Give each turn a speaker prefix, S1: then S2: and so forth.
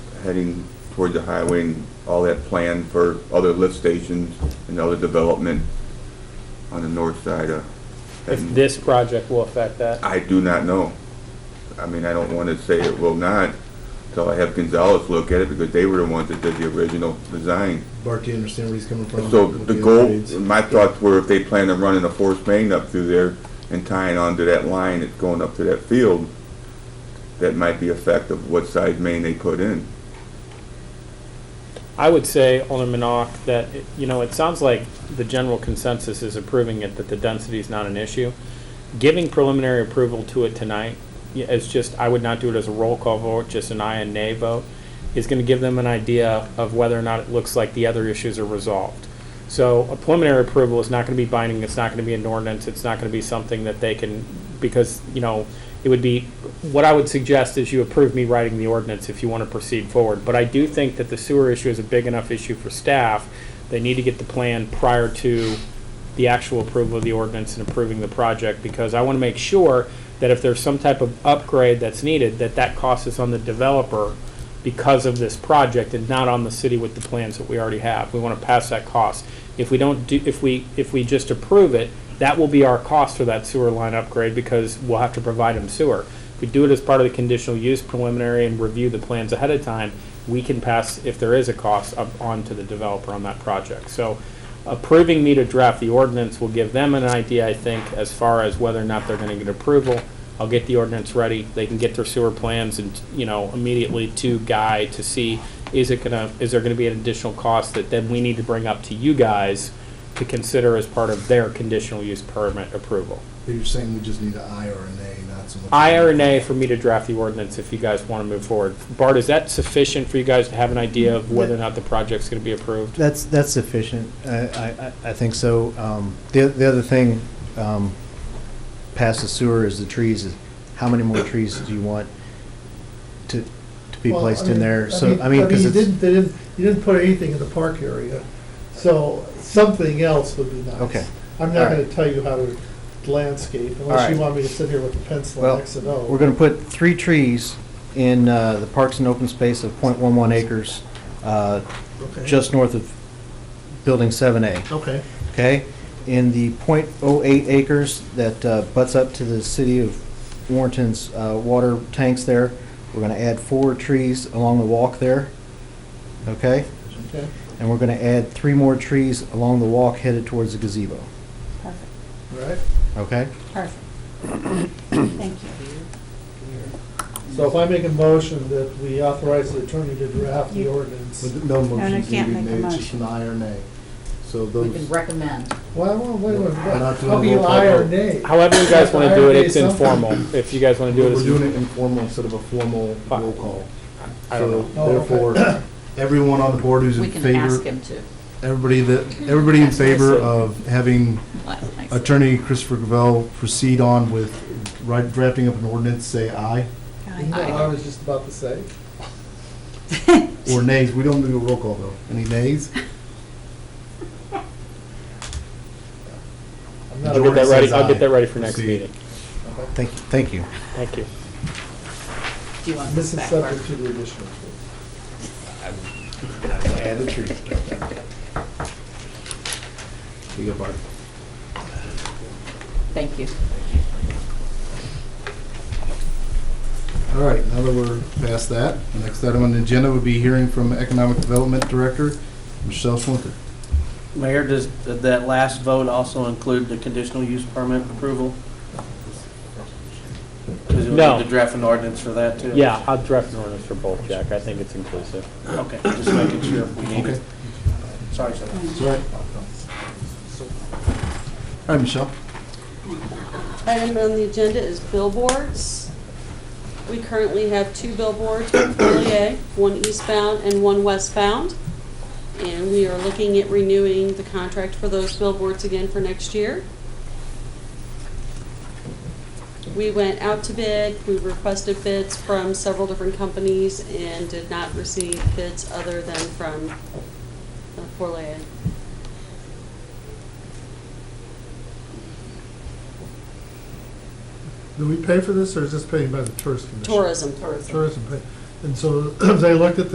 S1: heading toward the highway and all that plan for other lift stations and other development on the north side of
S2: If
S1: Hedden.
S2: this project will affect that.
S1: I do not know. I mean, I don't want to say it will not until I have Gonzalez look at it because they were the ones that did the original design.
S3: Bart, do you understand where he's coming from?
S1: So
S3: with
S1: the goal,
S3: upgrades?
S1: my thoughts were if they plan on running a forced main up through there and tying onto that line that's going up to that field, that might be effective, what size main they put in.
S2: I would say, Alderman Ock, that, it- you know, it sounds like the general consensus is approving it, that the density is not an issue. Giving preliminary approval to it tonight, yeah, it's just, I would not do it as a roll call vote, just an aye and nay vote, is gonna give them an idea of whether or not it looks like the other issues are resolved. So a preliminary approval is not gonna be binding, it's not gonna be an ordinance, it's not gonna be something that they can, because, you know, it would be, what I would suggest is you approve me writing the ordinance if you want to proceed forward. But I do think that the sewer issue is a big enough issue for staff. They need to get the plan prior to the actual approval of the ordinance and approving the project because I want to make sure that if there's some type of upgrade that's needed, that that cost is on the developer because of this project and not on the city with the plans that we already have. We want to pass that cost. If we don't do, if we, if we just approve it, that will be our cost for that sewer line upgrade because we'll have to provide them sewer. If we do it as part of the conditional use preliminary and review the plans ahead of time, we can pass, if there is a cost, up onto the developer on that project. So approving me to draft the ordinance will give them an idea, I think, as far as whether or not they're gonna get approval. I'll get the ordinance ready, they can get their sewer plans and, you know, immediately to Guy to see, is it gonna, is there gonna be an additional cost that then we need to bring up to you guys to consider as part of their conditional use permit approval?
S3: But You're saying we just need an I or an A, not so much.
S2: I or nay for me to draft the ordinance if you guys wanna move forward. Bart, is that sufficient for you guys to have an idea of whether or not the project's gonna be approved?
S4: That's, that's sufficient. I, I- I, I think so. Um, The, the other thing, um, past the sewer is the trees. is How many more trees do you want to, to be
S5: Well, I
S4: placed in
S5: mean-
S4: there? So, I mean, because
S5: you
S4: it's,
S5: didn't, they didn't, you didn't put anything in the park area, so something else would be nice.
S4: Okay.
S5: I'm not
S4: All
S5: gonna
S4: right.
S5: tell you how to landscape, unless you
S4: right.
S5: want me to sit here with a pencil
S4: Well,
S5: and X and O.
S4: we're gonna put three trees in, uh, the parks and open space of .11 acres, uh,
S5: Okay.
S4: just north of Building seven A.
S5: Okay,
S4: okay? In the .08 acres that uh, butts up to the city of Warrenton's uh, water tanks there, we're gonna add four trees along the walk there, okay?
S5: okay.
S4: And we're gonna add three more trees along the walk headed towards the gazebo,
S6: Perfect,
S5: All right.
S4: okay?
S6: perfect. Thank you.
S5: So if I make a motion that we authorize the attorney to draft the
S6: You-
S5: ordinance,
S3: But No
S6: no,
S3: motions need
S6: can't
S3: to be
S6: make a
S3: made, just an
S6: motion.
S3: I or an A. So
S7: We can
S3: those,
S7: recommend.
S5: well, well, wait, wait, wait,
S3: We're not doing
S5: how
S3: a
S5: can you
S3: roll call
S5: I or
S3: vote.
S5: nay?
S2: However you guys wanna do it, it's
S5: Something.
S2: informal. If you guys wanna do it
S3: we're
S2: as.
S3: doing it informal instead of a formal
S2: Fine.
S3: roll call.
S2: I don't know.
S5: Oh,
S3: So therefore, everyone on the board who's
S7: We
S3: in
S7: can ask
S3: favor,
S7: him to.
S3: everybody that, everybody in favor of having
S7: Attorney.
S3: Attorney Christopher Gravel proceed on with right- drafting up an ordinance, say aye
S5: You know
S6: Aye.
S5: what I was just about to say.
S3: or nays. We don't do a roll call though. Any nays?
S5: I'm not
S2: I'll get that
S3: Jordan
S2: ready,
S3: says
S2: I'll get
S3: aye.
S2: that ready for next
S3: Proceed.
S2: meeting.
S4: Thank, thank you.
S2: Thank you.
S7: Do you want this
S5: This is
S7: back, Mark?
S5: subject to the additional. approval.
S3: Add a tree. You go, Bart.
S7: Thank you.
S3: All right, now that we're past that, the next item on the agenda would be hearing from Economic Development Director, Michelle Swinker.
S8: Mayor, does did that last vote also include the conditional use permit approval? Because we
S2: No.
S8: need to draft an ordinance for that, too?
S2: Yeah, I'll draft an ordinance for both, Jack. I think it's inclusive.
S8: Okay, just making sure if we need it. Sorry, sir.
S3: That's all right. All right, Michelle.
S9: Item on the agenda is billboards. We currently have two billboards, in Montpelier, one eastbound and one westbound. And we are looking at renewing the contract for those billboards again for next year. We went out to bid, we requested bids from several different companies and did not receive bids other than from uh, Portland.
S5: Do we pay for this, or is this paid by the tourist commission?
S9: Tourism.
S5: Tourism pay. And so they looked at